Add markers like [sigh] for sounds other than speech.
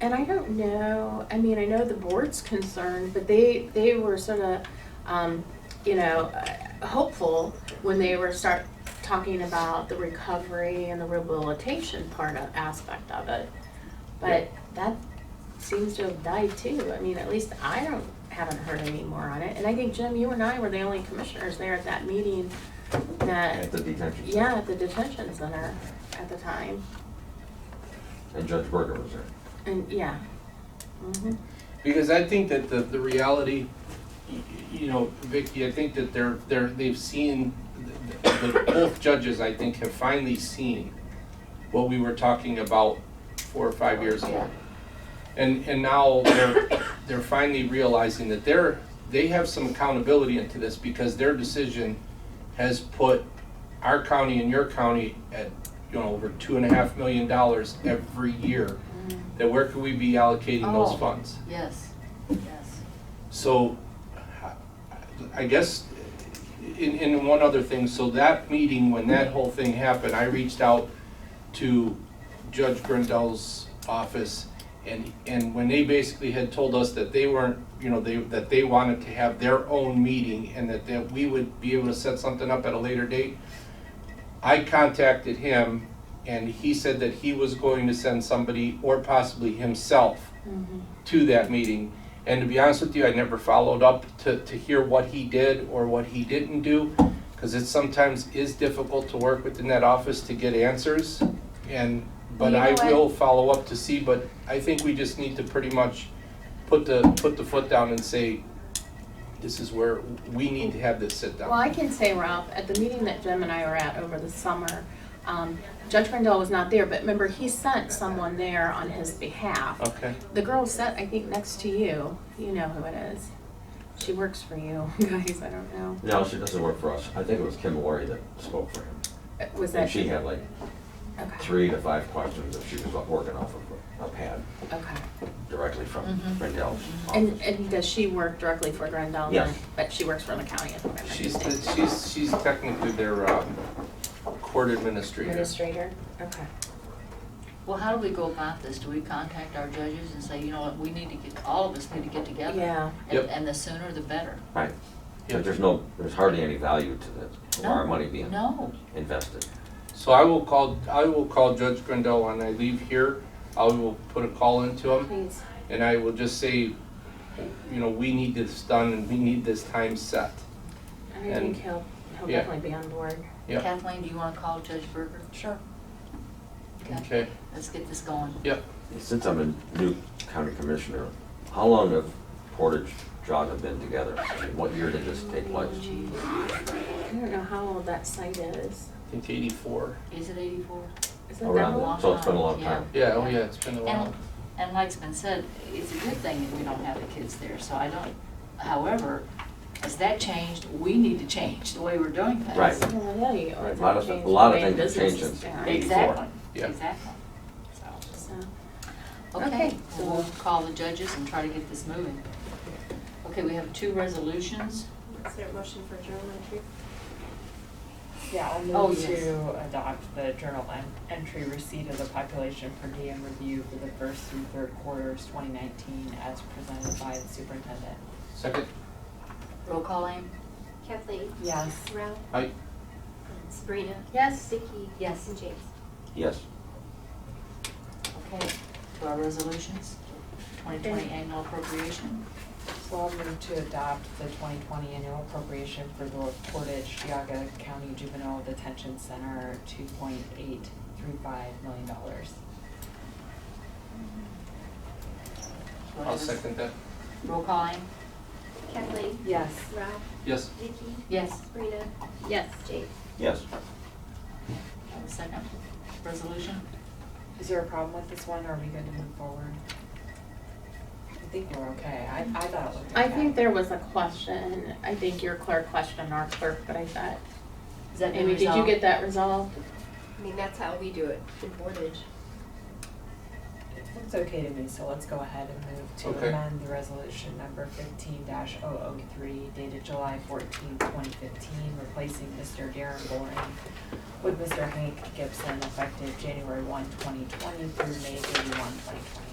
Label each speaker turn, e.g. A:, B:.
A: And I don't know, I mean, I know the board's concerned, but they, they were sort of, um, you know, uh, hopeful when they were start talking about the recovery and the rehabilitation part of, aspect of it. But that seems to have died too. I mean, at least I don't, haven't heard any more on it. And I think Jim, you and I were the only commissioners there at that meeting
B: at
A: that,
B: the detention. center.
A: yeah, at the detention center at the time.
B: And Judge Berger was there.
A: And, yeah. Mhm.
C: Because I think that the, the reality, y- you know, Vicky, I think that they're, they're, they've seen, the, the- both judges, I think, have finally seen what we were talking about four or five years ago. And, and now they're, they're finally realizing that they're, they have some accountability into this because their decision has put our county and your county at, you know, over two and a half million dollars every year. That where could we be allocating
D: Oh.
C: those funds?
D: Yes, yes.
C: So, I- I guess, in, in one other thing, so that meeting, when that whole thing happened, I reached out to Judge Grendel's office, and, and when they basically had told us that they weren't, you know, they, that they wanted to have their own meeting, and that, that we would be able to set something up at a later date, I contacted him, and he said that he was going to send somebody, or possibly himself,
A: Mm-hmm.
C: to that meeting. And to be honest with you, I never followed up to, to hear what he did or what he didn't do, because it sometimes is difficult to work within that office to get answers. And, but
A: You know
C: I
A: what?
C: will follow up to see, but I think we just need to pretty much put the, put the foot down and say, this is where we need to have this sit down.
A: Well, I can say, Ralph, at the meeting that Jim and I were at over the summer, um, Judge Rendell was not there, but remember, he sent someone there on his behalf.
C: Okay,
A: The girl sat, I think, next to you. You know who it is. She works for you, [laughs] guys, I don't know.
B: No, she doesn't work for us. I think it was Kim Laurie that spoke for him.
A: Uh, Was that?
B: And she had like
A: Okay,
B: three to five questions that she was working off of a pad
A: okay.
B: directly from Rendell's
A: Mm-hmm. And,
B: office.
A: and does she work directly for Rendell?
B: Yes.
A: But she works for the county at the moment.
C: she's, she's, she's technically their, um, court administrator.
A: Administrator, okay.
D: Well, how do we go about this? Do we contact our judges and say, you know what, we need to get, all of us need to get together?
A: Yeah.
D: And-
C: Yep.
D: And the sooner the better.
B: Right.
C: Yep.
B: But there's no, there's hardly any value to this, to our
D: No,
B: money being
D: No,
B: invested.
C: So I will call, I will call Judge Grindel when I leave here. I will put a call into him
A: Please.
C: and I will just say, you know, we need this done and we need this time set.
A: And I think he'll, he'll
C: Yeah.
A: definitely be on board.
C: Yep.
D: Kathleen, do you wanna call Judge Berger? Sure. Okay,
C: Okay,
D: let's get this going.
B: Since I'm a new county commissioner, how long have Portage Jogga been together? I mean, What year did this take place?
A: I don't know how old that site is.
C: I think eighty-four.
D: Is it eighty-four?
A: Is it that
B: Around,
A: old?
B: that. so it's been a long
D: Yeah.
B: time.
C: Yeah, oh yeah, it's been a while.
D: And, and like's been said, it's a good thing that we don't have the kids there, so I don't, however, as that changed, we need to change the way we're doing things.
B: Right.
A: Well, Oh, yeah, you
B: Right,
A: always
B: lot
A: have
B: of-
A: to
B: a lot of
A: change
B: things have
A: the name
B: changed
A: business.
B: since
A: Yeah.
B: eight.
D: Exactly,
C: Yeah.
D: exactly. So,
A: So,
D: Okay,
A: Okay.
D: so we'll call the judges and try to get this moving. Okay, we have two resolutions.
E: Is there a motion for adjournment too?
F: Yeah, I'll
D: Oh,
F: move
D: yes.
F: to adopt the journal en- entry receipt of the population per diem review for the first through third quarters twenty nineteen as presented by the superintendent.
C: Second,
D: Roll call aim?
E: Kathleen?
F: Yes.
E: Ralph?
C: Aye.
E: And Sabrina?
A: Yes.
E: Vicky?
D: Yes.
E: And James?
B: Yes.
D: Okay, to our resolutions. Twenty twenty annual appropriation.
F: So I'll move to adopt the twenty twenty annual appropriation for the Portage Yaga County Juvenile Detention Center, two point eight three five million dollars.
C: I'll second that.
D: Roll call aim?
E: Kathleen?
F: Yes.
E: Ralph?
C: Yes,
E: Vicky?
D: Yes.
E: Sabrina?
A: Yes.
E: James?
B: Yes.
D: Have a second resolution?
F: Is there a problem with this one, or are we good to move forward? I think we're okay, I, I thought it looked okay.
A: I think there was a question, I think your clerk questioned our clerk, but I thought,
D: Is that been
A: Amy, did you
D: resolved?
A: get that resolved?
E: I mean, that's how we do it in Portage.
F: It's okay to me, so let's go ahead and move
C: Okay.
F: to amend the resolution number fifteen 3 dated July 14, twenty fifteen, replacing Mr. Darren Boring with Mr. Hank Gibson effective January 1, 2020, through May 31, 2020.